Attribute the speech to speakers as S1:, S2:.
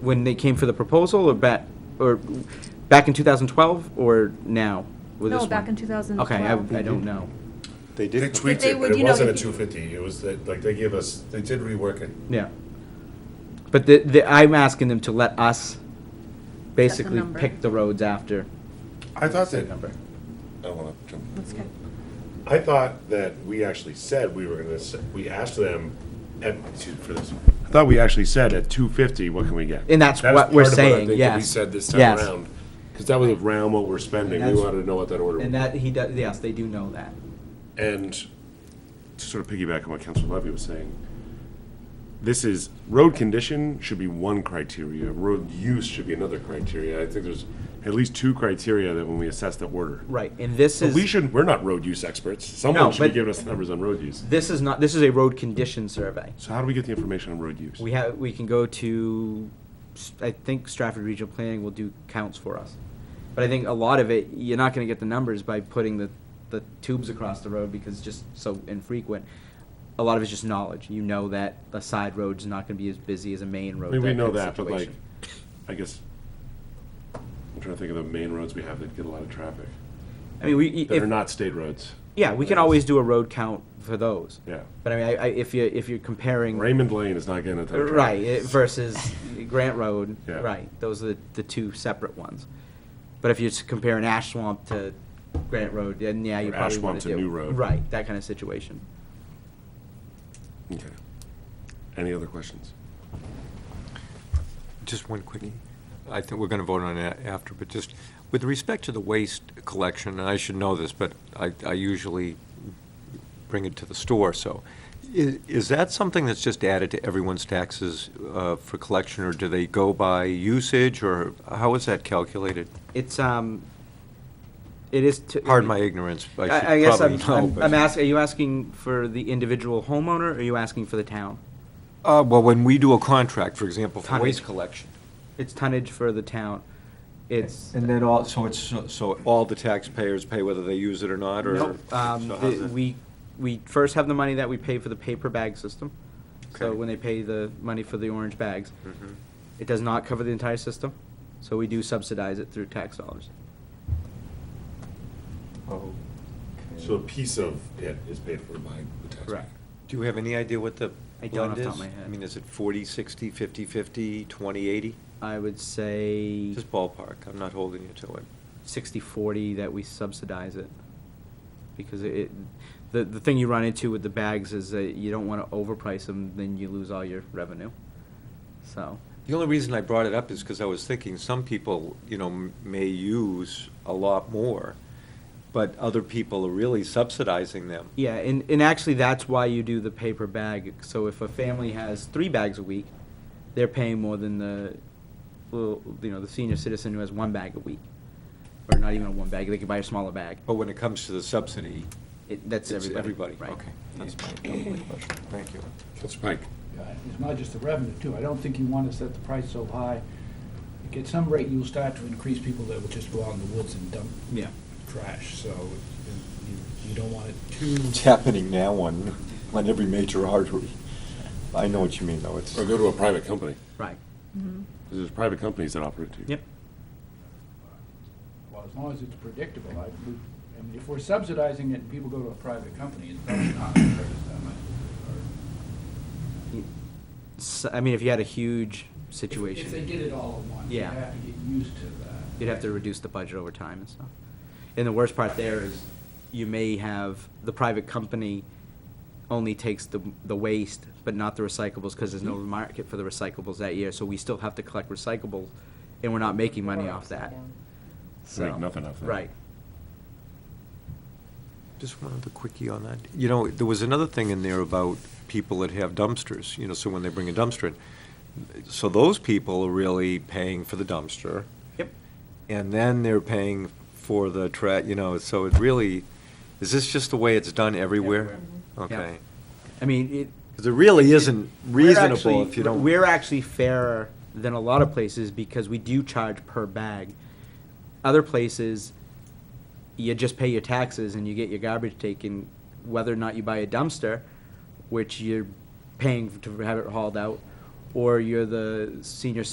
S1: when they came for the proposal, or back, or back in 2012, or now with this
S2: No,
S1: one?
S2: back in 2012.
S1: Okay, I, I don't know.
S3: They
S4: They
S3: did,
S4: tweaked
S2: they
S4: it,
S2: would,
S4: but it
S2: you know,
S4: wasn't a
S2: if you-
S4: two fifty, it was, that- like, they gave us, they did rework it.
S1: Yeah. But the, the, I'm asking them to let us basically
S2: number.
S1: pick the roads after.
S4: I thought that,
S1: number.
S3: I don't wanna jump.
S2: That's good.
S4: I thought that we actually said we were gonna, s- we asked them, at- excuse me for this. I thought we actually said at two fifty, what can we get?
S1: And that's
S4: That was
S1: what we're
S4: part of I
S1: saying,
S4: think that We
S1: yes.
S4: said this time
S1: Yes.
S4: around, because that was around what we're spending, we
S1: that's-
S4: wanted to know what that order
S1: And
S4: was.
S1: that, he does, yes, they do know that.
S4: And to sort of piggyback on what Council Levy was saying, this is, road condition should be one criteria, road use should be another criteria. I think there's at least two criteria that when we assess the order.
S1: Right, and this
S4: But we
S1: is,
S4: shouldn't, we're not road use experts.
S1: No,
S4: Someone should
S1: but-
S4: be giving us the numbers on road use.
S1: this is not, this is a road condition survey.
S4: So how do we get the information on road use?
S1: We have, we can go to, s- I think Stratford Regional Planning will do counts for us. But I think a lot of it, you're not gonna get the numbers by putting the, the tubes across the road because it's just so infrequent. A lot of it's just knowledge. You know that a side road's not gonna be as busy as a main
S4: I
S1: road.
S4: mean, we know
S1: kind of
S4: that, but like,
S1: situation.
S4: I guess, I'm trying to think of the main roads we have that get a lot of traffic,
S1: I mean, we,
S4: that
S1: if,
S4: are not state roads.
S1: yeah, we can always do a road count for those.
S4: Yeah.
S1: But I mean, I, I, if you, if you're comparing.
S4: Raymond Lane is not getting a ton of traffic.
S1: Right, it- versus Grant Road,
S4: Yeah.
S1: right, those are the, the two separate ones. But if you're just comparing Ash Swamp to Grant Road, then yeah, you
S4: Or Ash
S1: probably wanna
S4: Swamp to
S1: do-
S4: New Road.
S1: Right, that kind of situation.
S4: Okay. Any other questions?
S5: Just one quickie. I think we're going to vote on that after, but just with respect to the waste collection, and I should know this, but I, I usually bring it to the store, so. Is, is that something that's just added to everyone's taxes uh, for collection, or do they go by usage, or how is that calculated?
S1: It's, um, it is. to-
S5: Pardon my ignorance, I should
S1: I, I guess
S5: probably
S1: I'm,
S5: know,
S1: I'm,
S5: but-
S1: I'm asking, are you asking for the individual homeowner, or are you asking for the town?
S5: Uh, well, when we do a contract, for example, for
S1: Tonnage.
S5: waste collection.
S1: It's tonnage for the town, it's.
S5: And then all, so it's, so- so all the taxpayers pay whether they use it or not, or?
S1: Nope. Um, the-
S5: so how's it-
S1: we, we first have the money that we pay for the paper bag system. So
S5: Okay. Hmm.
S1: when they pay the money for the orange bags, it does not cover the entire system. So we do subsidize it through tax dollars.
S5: Oh.
S4: So a piece of it is paid for by the taxpayer.
S1: Correct.
S5: Do you have any idea what the
S1: I don't
S5: blend
S1: off the
S5: is?
S1: top of my head.
S5: I mean, is it 40, 60, 50, 50, 20, 80?
S1: I would say
S5: Just ballpark, I'm not holding you to it.
S1: sixty, forty that we subsidize it. Because it, the, the thing you run into with the bags is that you don't wanna overprice them, then you lose all your revenue. So,
S5: The only reason I brought it up is because I was thinking some people, you know, m- may use a lot more, but other people are really subsidizing them.
S1: Yeah, and, and actually, that's why you do the paper bag. So if a family has three bags a week, they're paying more than the, little you know, the senior citizen who has one bag a week. Or not even a one bag, they can buy a smaller bag.
S5: But when it comes to the subsidy,
S1: It, that's
S5: it's
S1: everybody. right.
S5: everybody. Okay, that's my only question. Thank you.
S4: Councilor Pike.
S6: Yeah, It's not just the revenue, too. I don't think you want to set the price so high. Like, At some rate, you'll start to increase people that will just go out in the woods and dump
S1: Yeah.
S6: trash, so you- you don't want it too,
S7: It's happening now on, on every major artery. I know what you mean, though. It's,
S4: Or go to a private company.
S1: Right.
S4: There's private companies that operate too.
S1: Yep.
S6: well, as long as it's predictable. I we- I mean, if we're subsidizing it and people go to a private company, it's probably not going to hurt us that much.
S1: S I I mean, if you had a huge
S6: Or If they
S1: situation,
S6: get it all at once, you
S1: Yeah.
S6: have to get used to that.
S1: you'd have to reduce the budget over time and stuff. And the worst part there is you may have, the private company only takes the, the waste, but not the recyclables, because there's no market for the recyclables that year, so we still have to collect recyclables, and we're not making money off that. So-
S4: Make nothing off that.
S1: Right.
S5: Just one other quickie on that. You know, there was another thing in there about people that have dumpsters, you know, so when they bring a dumpster in. So those people are really paying for the dumpster,
S1: Yep.
S5: and then they're paying for the tra, you know, so it really, is this just the way it's done everywhere?
S1: Everywhere.
S5: Okay.
S1: I mean, it.
S5: Because it really isn't
S1: we're
S5: reasonable
S1: actually-
S5: if you don't.
S1: We're actually fairer than a lot of places because we do charge per bag. Other places, you just pay your taxes and you get your garbage taken, whether or not you buy a dumpster, which you're paying to have it hauled out, or you're the senior